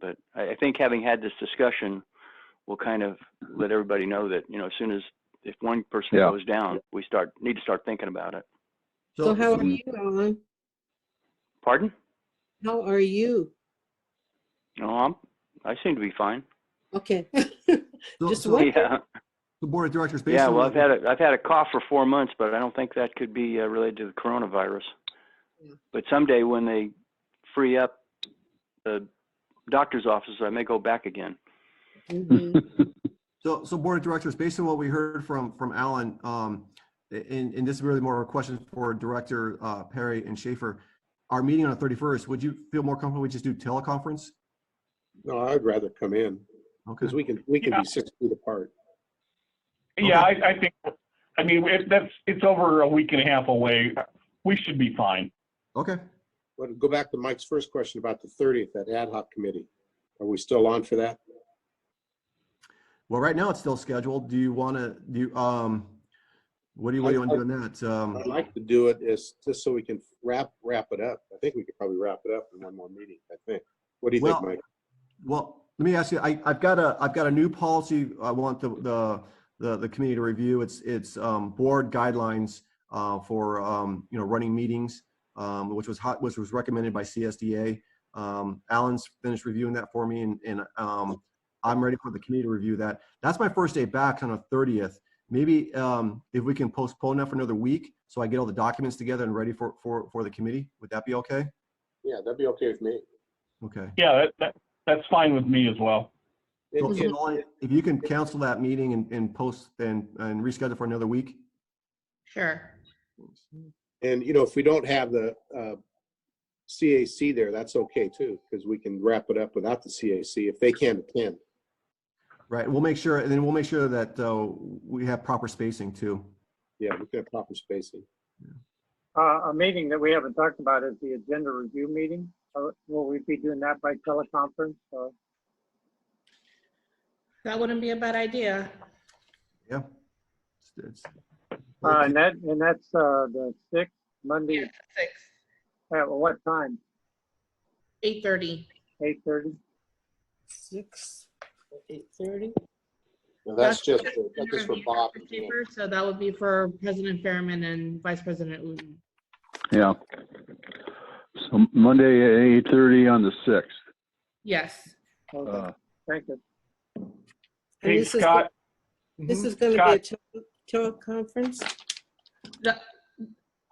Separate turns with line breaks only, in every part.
But I, I think having had this discussion will kind of let everybody know that, you know, as soon as, if one person
Yeah.
goes down, we start, need to start thinking about it.
So how are
mm-hmm.
Mm.
you, Alan?
Pardon?
How are you?
No, I'm, I seem to be fine.
Okay.
so-
just
so
what-
Yeah,
The board of directors, based
yeah,
on.
well,
what
I've had a, I've had a cough for four months, but I don't think that could be uh, related to the coronavirus.
Yeah.
But someday when they free up the doctor's offices, I may go back again.
Mhm.
So, so Board of Directors, based on what we heard from, from Alan, um, and, and this is really more of a question for Director, uh, Perry and Schaefer. Our meeting on the thirty-first, would you feel more comfortable we just do teleconference?
No, I'd rather come in
Okay,
because we can, we can
Yeah.
be six feet apart.
Yeah, I, I think, I mean, it, that's, it's over a week and a half away. We should be fine.
okay,
But go back to Mike's first question about the 30th, that ad hoc committee. Are we still on for that?
well, right now it's still scheduled, do you wanna, do, you, um, what do you, what do you wanna do on that? Um,
I'd like to do it is just so we can wrap, wrap it up. I think we could probably wrap it up in one more meeting, I think. What do you think,
Well,
Mike?
Well, let me ask you, I, I've got a, I've got a new policy I want the, the, the, the committee to review. It's, it's, um, board guidelines, uh, for, um, you know, running meetings, um, which was hot, which was recommended by CSDA. Um, Alan's finished reviewing that for me and, and, um, I'm ready for the committee to review that. That's my first day back on the thirtieth. Maybe, um, if we can postpone that for another week, so I get all the documents together and ready for, for, for the committee, would that be okay?
Yeah, that'd be okay with me.
Okay.
Yeah, that, that, that's fine with me as well.
So,
It-
so
it-
Molly, If you can cancel that meeting and, and post and, and reschedule for another week?
Sure.
And, you know, if we don't have the uh, CAC there, that's okay too, because we can wrap it up without the CAC if they can't attend.
Right, we'll make sure, and then we'll make sure that, uh, we have proper spacing too.
Yeah, we can have proper spacing.
Uh, a meeting that we haven't talked about is the agenda review meeting. Uh, Will we be doing that by teleconference? or-
That wouldn't be a bad idea.
Yeah. It's- it's-
Uh, and that, and that's, uh, the sixth, Monday,
Six,
at what time?
eight thirty.
Eight thirty?
Six, eight thirty.
Now, that's just, that's just for Bob.
So that would be for President Fairman and Vice President Wooten.
Yeah. So Monday at 8:30 on the 6th.
Yes.
Okay,
Uh,
thank you.
And
Hey,
this is
Scott,
This is gonna be a tele- teleconference?
The-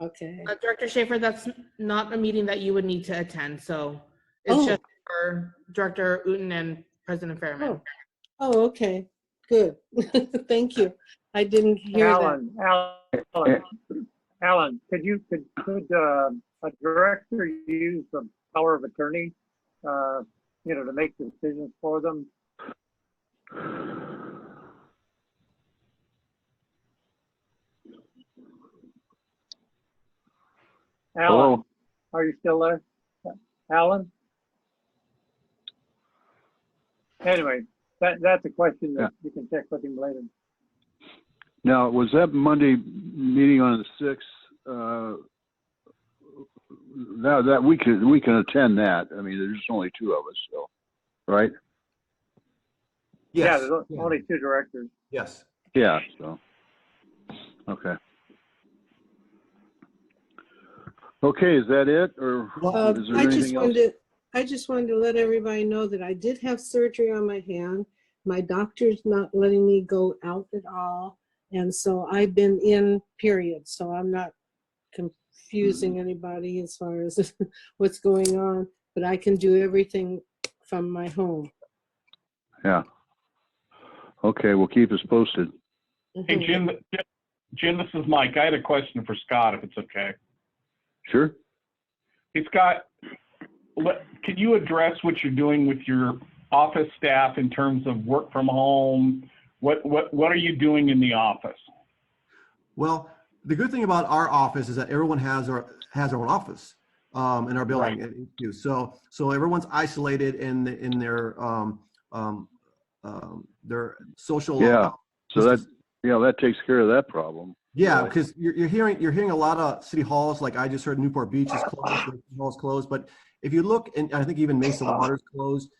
Okay.
Uh, Director Schaefer, that's not a meeting that you would need to attend, so it's
Oh.
just for Director Wooten and President Fairman.
Oh. Oh, okay, good. Thank you. I didn't hear that.
Alan, Alan, Alan, could you, could, could, uh, a director use the power of attorney? Uh, you know, to make decisions for them? Alan,
Hello?
are you still there? Alan? Anyway, that, that's a question that you can check with him later.
Now, was that Monday meeting on the 6th? uh, That, that, we can, we can attend that. I mean, there's only two of us, so, right?
Yeah,
Yes,
there's o- only two directors.
yes.
Yeah, so, okay. Okay, is that it, or
Uh,
is there
I just
anything else?
wanted, to- I just wanted to let everybody know that I did have surgery on my hand. My doctor's not letting me go out at all. And so I've been in period, so I'm not confusing
Hmm.
anybody as far as what's going on. But I can do everything from my home.
Yeah. Okay, we'll keep us posted.
hey,
Mhm.
Jim, Jim, this is Mike. I had a question for Scott, if it's okay.
Sure?
Hey, Scott, let- can you address what you're doing with your office staff in terms of work from home? What, what, what are you doing in the office?
Well, the good thing about our office is that everyone has our, has their own office, um, in our building. and you- So, so everyone's isolated in, the- in their, um, um, um, their social.
Yeah, So
This
that,
is-
yeah, that takes care of that problem.
Yeah,
Really.
because you're, you're hearing you're hearing a lot of city halls. Like I just heard Newport Beach is closed, Lake City Hall's closed. But if you look, and I think even Ah. Mesa Water's closed.